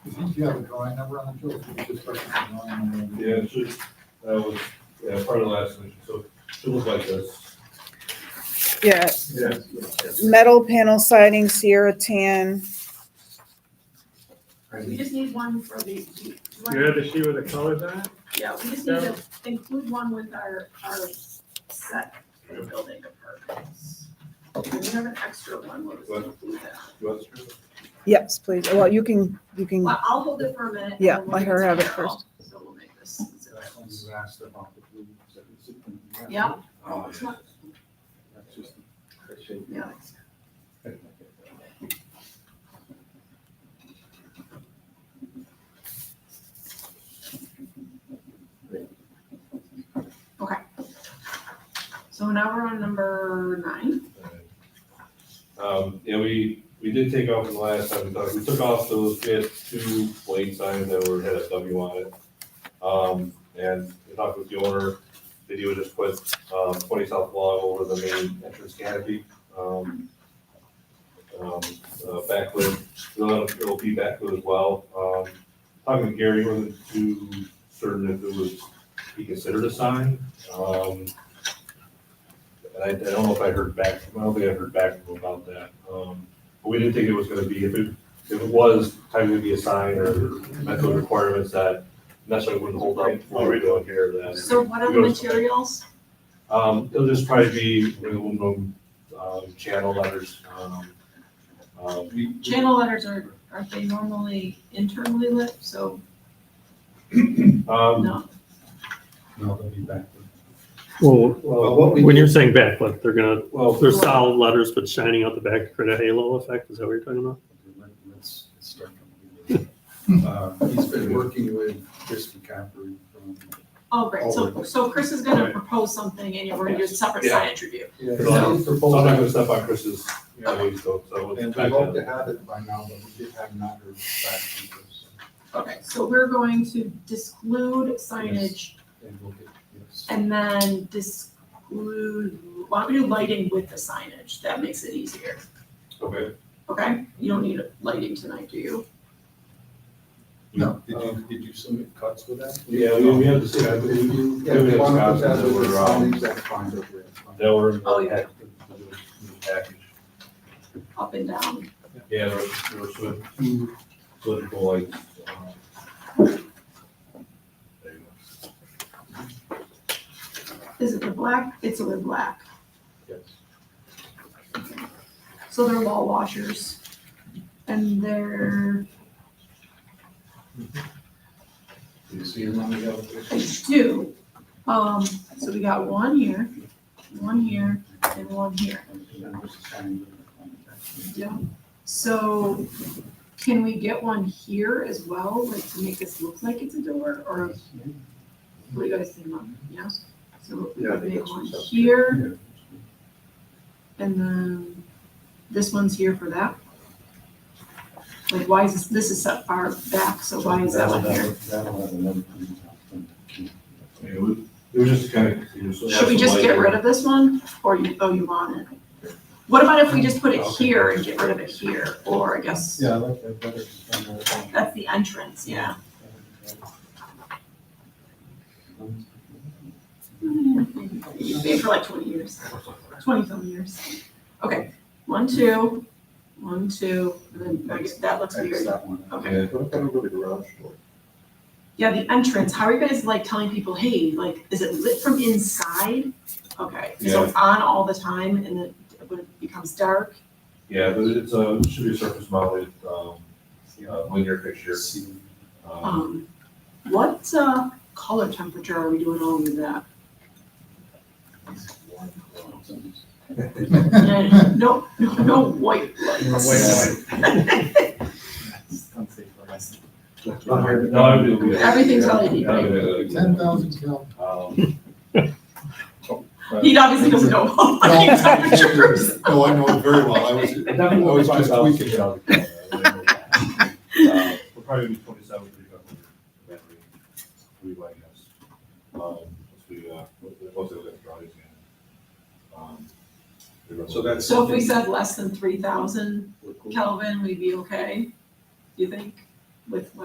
Do you have a drawing number on it, Joe? If you could just reference the drawing number. Yeah, it should, that was, yeah, part of the last mission, so it should look like this. Yeah, Yeah. metal panel siding, Sierra tan. We just need one for the. the- one- You had to see where the colors are? Yeah, we just need to include one with our, our set for the building apartments. And We have an extra one, we'll just include that. What's- Yes, please. Well, you can, you can, Well, I'll hold it for a minute. and Yeah, then we'll let get her to have it Carol. first. So we'll make this. That's when you asked about the blue, is that the zip and- Yeah. Oh, yeah. That's just the shape. Yeah. So now we're on number nine. uh, Um, yeah, we, we did take off the last time we talked, we took off those, we had two lane signs that were, had a W on it. Um, and we talked with the owner, that he would just put, um, twenty south log over the main entrance canopy. Um, um, uh, backlit, it'll, it'll be backlit as well. Um, talking to Gary, wasn't too certain if it was, he considered a sign. Um, and I, I don't know if I heard back, I don't think I heard back from him about that. Um, but we didn't think it was gonna be, if it, if it was, time to be a sign or met those requirements that necessarily wouldn't hold up what we're doing here then. So what are the We go- materials? Um, it'll just probably be the aluminum, um, channel letters, um, um, we- Channel letters are, are they normally internally lit? So um, no. No, they'll be back. Well, well, what we, when you're saying backlit, they're gonna, well, they're solid letters, but shining out the back to create a halo effect, is that what you're talking about? Let- Let's let's start from the beginning. Uh, He's been working with Chris McCaffrey from. Oh, great. So, Over. so Chris is gonna Right. propose something and you're going to do a separate Yeah. signage review. Yeah, So I'm- it's so I'm not proposed, gonna step on Chris's, you know, lead, so, so. and we hope to have it by now, but we did have not heard back from this. Okay, so we're going to disclude signage And we'll get, yes. and then disclude, why don't we do lighting with the signage? That makes it easier, Okay. okay? You don't need lighting tonight, do you? No, did you, did you submit cuts with that? Yeah, we, we have to see, Yeah, I if believe, you, yeah, if you want to put that Maybe over it's the Wisconsin signage, that's fine. um, that were. Oh, yeah. Package. Up and down. Yeah, there were, there were sort of two political lights. um, there you go. Is it the black? It's a wood black. Yes. So they're wall washers and they're, Do you see him on the I elevation? do. Um, so we got one here, one here, and one here. And then there's a sign with the contact. Yeah. So can we get one here as well, like to make this look like it's a door or what do you guys think, Mom? Yes? So we Yeah, I could think make that's one what's up. here Yeah. and then this one's here for that. Like why is this, this is set far back, so why is that one That'll- here? That'll that'll have another. contact. I mean, It was, it was just kind of. Should we just get rid of this one, or you, oh, you want it? What about if we just put it here and get rid of it here, or I guess, Yeah, I like that better. than that. that's the entrance, yeah. You've been for like twenty years, twenty some years. Okay, one, two, one, two, and then, I guess that looks X weird. that one. Okay, Yeah, What kind of a garage door? yeah, the entrance, how are you guys like telling people, hey, like, is it lit from inside? Okay, so it's on all the time and then when it becomes dark, yeah, but it's a, it should be a surface mounted, um, uh, linear fixture. See, Um, Um, what, uh, color temperature are we doing along with that? No, no, no white lights. No, it'd be- Everything's LED, yeah, right? it'd be- Ten thousand cal. Um, He obviously doesn't know about lighting temperatures. No, I know it very well, I was, It definitely I was five just thousand. tweaking. Uh, We're probably gonna be twenty-seven, thirty-five. Three white guys. Um, once we, uh, once we get drawings in. um, we're gonna- So that's- So if we said less than three thousand we're cool. Kelvin, we'd be okay, you think, with